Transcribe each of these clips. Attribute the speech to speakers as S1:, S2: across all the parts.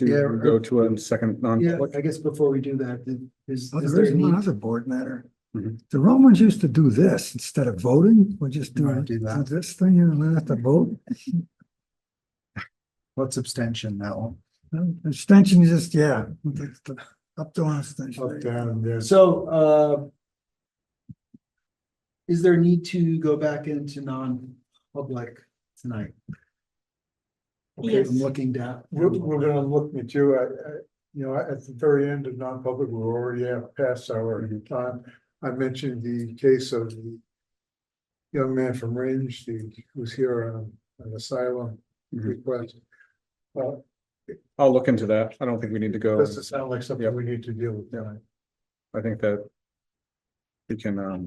S1: Yeah.
S2: to go to a second
S1: Yeah,
S2: non-public?
S1: I guess before we do that, is,
S3: Well,
S1: is
S3: there
S1: there a
S3: is one
S1: need? Mm-hmm.
S3: other board matter.
S2: Mhm.
S3: The Romans used to do this, instead of voting, we just
S1: You
S3: do
S1: wanna do
S3: do
S1: that?
S3: this thing and then have to vote.
S1: What's abstention now?
S3: Extension is just, yeah, that's the- up to an extension.
S1: So, uh. Is there a need to go back into non-public tonight? Okay,
S4: Yes.
S1: I'm looking down.
S5: We're, we're gonna look at you, I, I, you know, at the very end of non-public, we're already at past our time. I mentioned the case of the young man from Range, the, who's here on an asylum
S2: Mhm.
S5: request. Uh,
S2: I'll look into that. I don't think we need to go.
S5: doesn't sound like
S2: Yep.
S5: something we need to deal with tonight.
S2: I think that we can, um,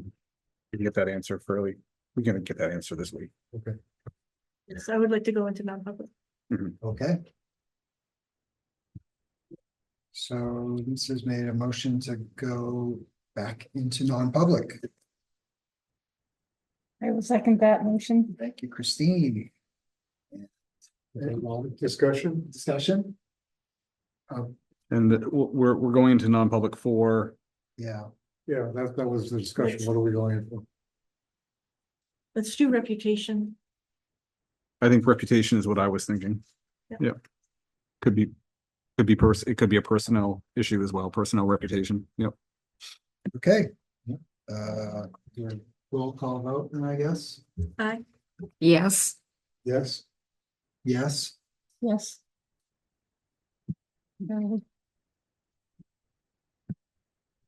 S2: we can get that answer fairly, we can get that answer this week.
S4: Yes, I would like to go into non-public.
S1: Okay. So this has made a motion to go back into non-public.
S6: I will second that motion.
S1: Thank you, Christine.
S5: Any Discussion,
S1: Discussion?
S2: And w- we're, we're going into non-public for,
S1: Yeah.
S5: yeah, that, that was the discussion, what are we going in for?
S4: Let's do reputation.
S2: I think reputation is what I was thinking.
S4: Yeah.
S2: Yeah. Could be, could be person, it could be a personnel issue as well, personnel reputation. Yep.
S1: Okay. Uh, your roll call vote, then I guess.
S4: Aye.
S6: Yes.
S5: Yes,
S1: Yes,
S6: Yes. Very good.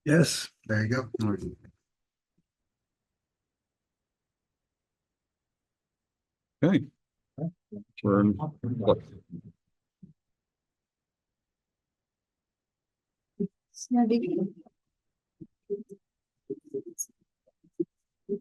S3: Yes.
S1: there you go.
S2: All right. Okay. We're in What?
S6: It's not big.